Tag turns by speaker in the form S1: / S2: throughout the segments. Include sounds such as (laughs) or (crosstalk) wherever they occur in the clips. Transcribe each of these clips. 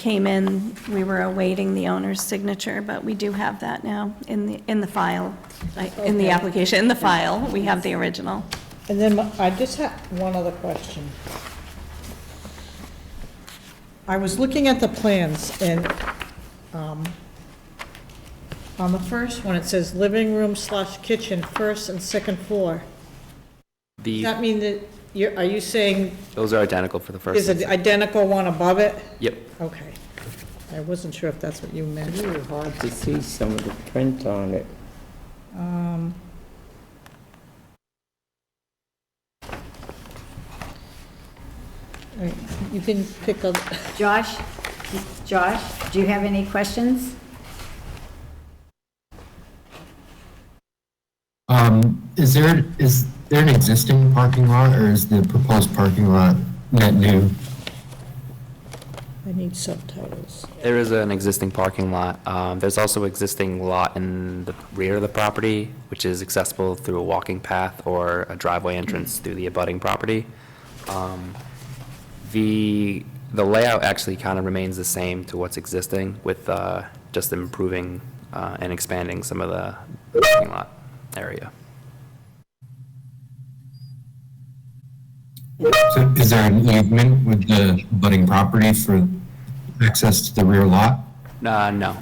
S1: came in, we were awaiting the owner's signature, but we do have that now in the, in the file, like, in the
S2: Okay.
S1: application, in the file, we have the original.
S2: And then my- I just have one other question. I was looking at the plans and, um, on the first one, it says living room slash kitchen, first and second floor. Does
S3: The,
S2: that mean that you're, are you saying
S3: those are identical for the first.
S2: is an identical one above it?
S3: Yep.
S2: Okay. I wasn't sure if that's what you meant.
S4: Really hard to see some of the print on it.
S2: Um, all right, You can pick up,
S5: Josh, Josh, do you have any questions?
S6: Um, is there, is there an existing parking lot or is the proposed parking lot net new?
S2: I need subtitles.
S3: There is an existing parking lot. Um, There's also existing lot in the rear of the property, which is accessible through a walking path or a driveway entrance through the abutting property. Um, The, the layout actually kind of remains the same to what's existing with uh, just improving uh, and expanding some of the parking lot area.
S6: So is there an easement with the budding property for access to the rear lot?
S3: Uh, No,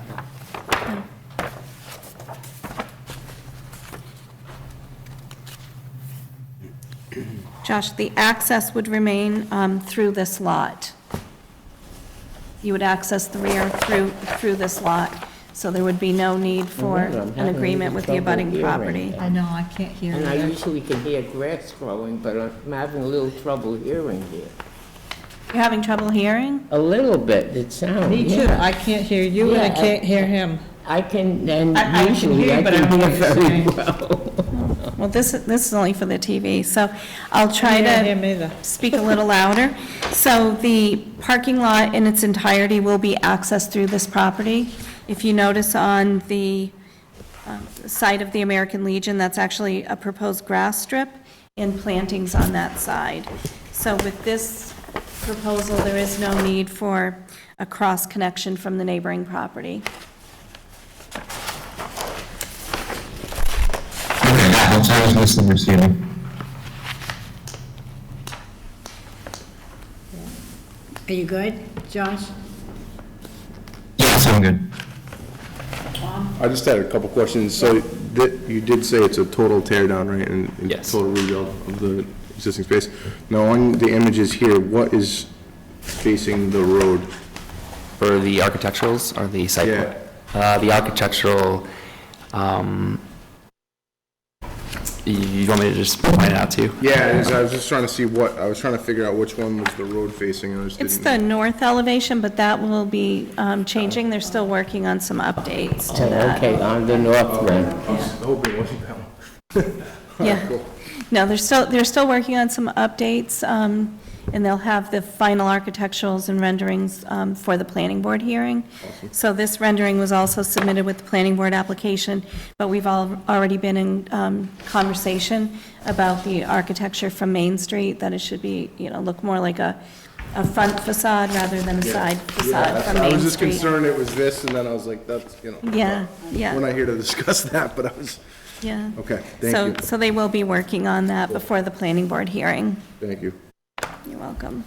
S1: Josh, the access would remain um, through this lot. You would access the rear through, through this lot, so there would be no need for
S4: Remember, I'm
S1: an
S4: having
S1: agreement with the
S4: trouble
S1: abutting
S4: hearing.
S1: property.
S5: I know, I can't hear
S4: And I usually can hear grass growing, but I'm having a little trouble hearing here.
S1: You're having trouble hearing?
S4: A little bit, it sounds,
S2: Me too,
S4: yeah.
S2: I can't hear you and I
S4: Yeah, I-
S2: can't hear him.
S4: I can, and
S2: I- I can
S4: usually
S2: hear you,
S4: I
S2: but I
S4: can
S2: don't
S4: hear
S2: know what you're
S4: very
S2: saying.
S4: (laughs) well.
S1: Well, this, this is only for the TV, so I'll try
S2: Can't
S1: to.
S2: hear him either.
S1: speak a little louder. So the parking lot in its entirety will be accessed through this property. If you notice on the um, side of the American Legion, that's actually a proposed grass strip and plantings on that side. So with this proposal, there is no need for a cross-connection from the neighboring property.
S6: Okay, that's what I was misunderstanding.
S5: Are you good, Josh?
S6: Yes, I'm good.
S7: I just had a couple questions. So that, you did say it's a total tear down, right? And and
S3: Yes.
S7: Total rebuild of the existing space. Now, on the images here, what is facing the road?
S3: For the architecturals or the site? plan? Uh, the architectural, um, you- you want me to just point it out to you?
S7: Yeah, it is. I was just trying to see what, I was trying to figure out which one was the road facing, and I just didn't.
S1: It's the north elevation, but that will be um, changing. They're still working on some updates to that.
S4: Okay, on the north end.
S7: I was hoping it wasn't that one. Oh,
S1: Yeah. No, they're still, they're still working on some updates, um, and they'll have the final architecturals and renderings um, for the planning board hearing. So this rendering was also submitted with the planning board application, but we've all, already been in um, conversation about the architecture from Main Street, that it should be, you know, look more like a, a front facade rather than a side facade from
S7: Yeah, I
S1: Main
S7: was just
S1: Street.
S7: concerned it was this, and then I was like, that's, you know.
S1: Yeah, yeah.
S7: We're not here to discuss (laughs) that, but I was,
S1: Yeah.
S7: okay,
S1: So-
S7: thank you,
S1: So they will be working on that before the planning board hearing.
S7: thank you.
S1: You're welcome.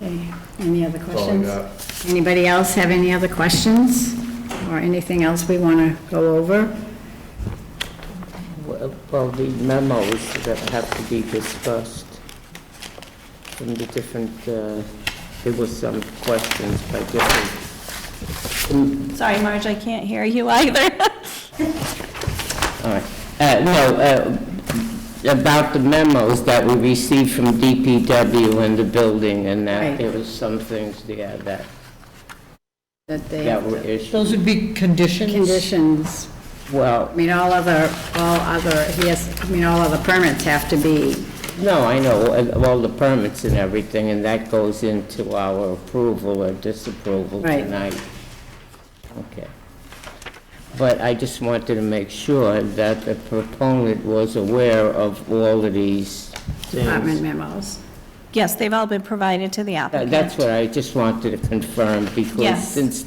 S5: Okay, Any other
S7: all I
S5: questions?
S7: got.
S5: Anybody else have any other questions or anything else we want to go over?
S4: Well, well, the memos that have to be discussed from the different, uh, there were some questions by different,
S1: Sorry, Marge, I can't hear you either. (laughs)
S4: all right. Uh, No, uh, about the memos that we received from DPW and the building and that,
S5: Right.
S4: there was some things there that, that
S5: That they,
S4: were issues.
S2: Those would be conditions?
S5: conditions, I
S4: Well,
S5: mean, all other, all other, he has, I mean, all other permits have to be,
S4: no, I know, uh, all the permits and everything, and that goes into our approval or disapproval
S5: Right.
S4: tonight. Okay. But I just wanted to make sure that the proponent was aware of all of these things.
S5: department memos.
S1: Yes, they've all been provided to the
S4: Uh,
S1: applicant.
S4: That's what I just wanted to confirm, because
S1: Yes.
S4: since